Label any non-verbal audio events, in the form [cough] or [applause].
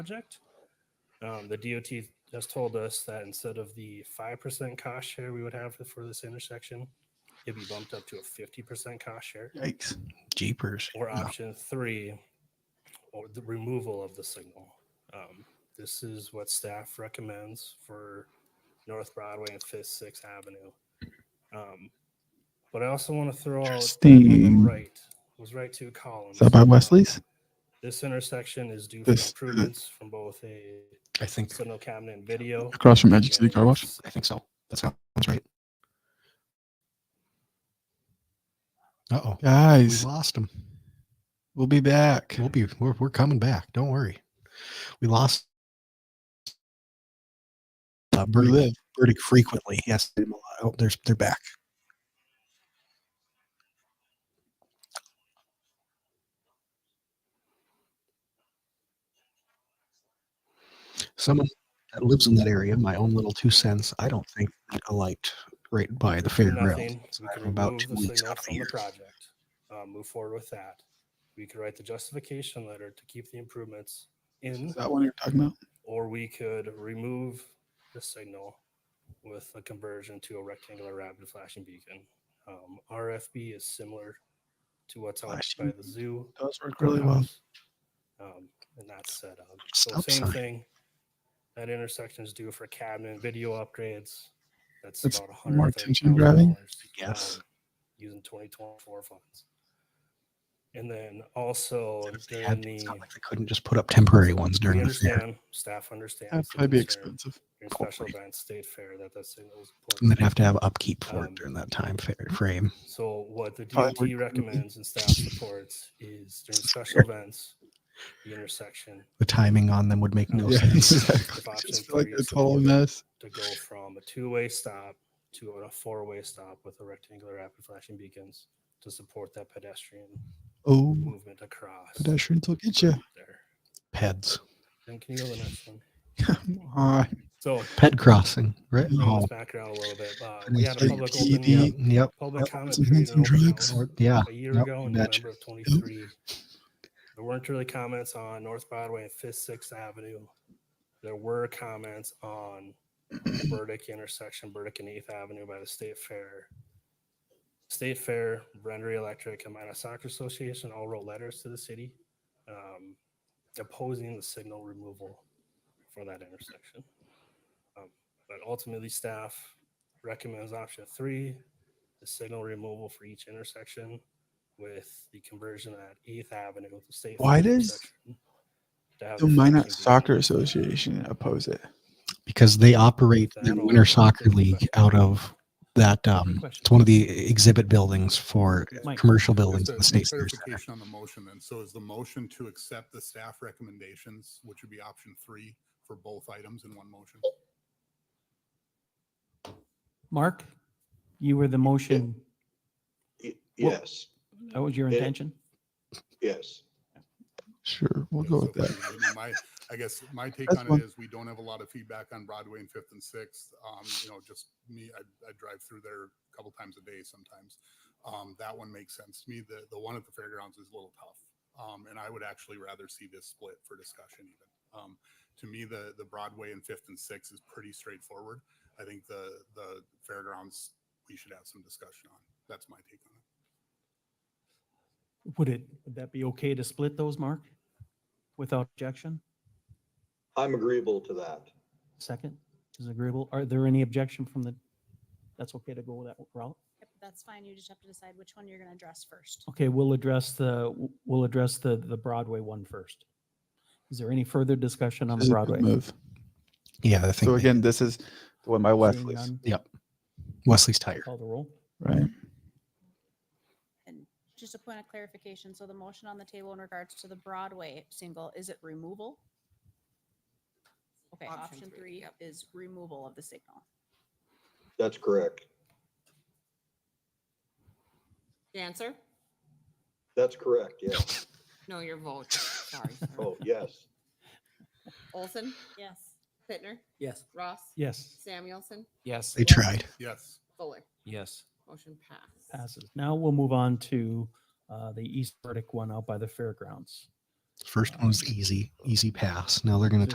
project. Um, the DOT has told us that instead of the five percent cost share we would have for this intersection, it'd be bumped up to a fifty percent cost share. Yikes. Jeepers. Or No. option three, or the removal of the signal. Um, this is what staff recommends for North Broadway and Fifth, Sixth Avenue. Um, but I also want to throw out Interesting. right was right to columns. Is that by Wesley's? This intersection is due for This- improvements from both a I think signal cabinet and video. across from Magic City Car Wash. I think so. That sounds right. Uh oh. We Guys, lost him. we'll be back. We'll be, we're, we're coming back. Don't worry. We lost. Uh, We Bernie, live pretty frequently. Yes, I'm alive. oh, there's they're back. Someone that lives in that area, my own little two cents, I don't think a light right by the fairgrounds. Nothing. So We I can have about remove two the weeks signal out of the from the year. project, uh, move forward with that. We could write the justification letter to keep the improvements in, Is that one you're talking about? or we could remove the signal with a conversion to a rectangular rapid flashing beacon. Um, RFB is similar to what's out by Flashing. the zoo. Does work courthouse, Um, and that's set up. So Stop same sign. thing. That intersection is due for cabinet video upgrades. That's That's about a more hundred attention grabbing? Yes. um, Using twenty twenty-four funds. And then also If they during had to, the, It's not like they couldn't just put up temporary ones we during the fair. understand, staff understands. That'd the probably be concern expensive. During special Hopefully. events, state fair, that that signal is And they'd important. have to have upkeep for Um, it during that time fa- frame. So what the Probably DOT work- recommends and staff supports is during [laughs] special events, the intersection The timing on them would make no Yeah, [laughs] sense. exactly. I option just feel like three a is to total do it. mess. to go from a two-way stop to a four-way stop with a rectangular rapid flashing beacons to support that pedestrian Oh, movement across pedestrians will get [laughs] you. there. Peds. And can you go to the next one? Uh, So Ped crossing, right? bring Oh, this back around a little bit. Uh, we had a Like public PD. open yeah, yeah, yep. public That comment was period some and open drugs. house Or- Yeah. a year Yep, ago you in betcha. November of 23. There weren't really comments on North Broadway and Fifth, Sixth Avenue. There were comments on Burdick intersection, Burdick and Eighth Avenue by the State Fair. State Fair, Rendery Electric, and Minnesota Soccer Association all wrote letters to the city um, opposing the signal removal for that intersection. Um, but ultimately, staff recommends option three, the signal removal for each intersection with the conversion at Eighth Avenue with the State. Why Fair does intersection to have the the Minot 15 beacon. Soccer Association oppose it. Because they operate the That'll- Winter Soccer that'll League affect- out of that. Um, Question. it's one of the exhibit buildings for Mike. commercial buildings Just in a the state. fair. clarification on the motion then. So is the motion to accept the staff recommendations, which would be option three for both items in one motion? Mark, you were the motion. Y- Well- Yes, That was your Yeah. intention? yes. Sure, we'll Yeah, go so with that. I mean, My, I guess my take That's on fine. it is we don't have a lot of feedback on Broadway and Fifth and Sixth. Um, you know, just me, I, I drive through there a couple times a day sometimes. Um, that one makes sense to me. The, the one at the fairgrounds is a little tough. Um, and I would actually rather see this split for discussion even. Um, to me, the, the Broadway and Fifth and Sixth is pretty straightforward. I think the, the fairgrounds, we should have some discussion on. That's my take on it. Would it, would that be okay to split those, Mark? Without objection? I'm agreeable to that. Second is agreeable. Are there any objection from the, that's okay to go that route? Yep, That's fine. You just have to decide which one you're going to address first. Okay, we'll address the, we'll address the, the Broadway one first. Is there any further discussion on This the is a good Broadway? move. Yeah, I think So they- again, this is the one by Seeing Wesley's, none, Wesley's tire. Call the roll. right? And just a point of clarification, so the motion on the table in regards to the Broadway single, is it removal? Okay, Option option three, three yep. is removal of the signal. That's correct. Dancer? That's correct. Yes. No, your vote. Sorry. sorry. Oh, yes. Olson, Yes. Pittner, Yes. Ross, Yes. Samuelson, Yes. They tried. Yes. Fuller. Yes. Motion passed. Passes. Now we'll move on to uh, the East Burdick one out by the fairgrounds. First one was easy, easy pass. Now they're going to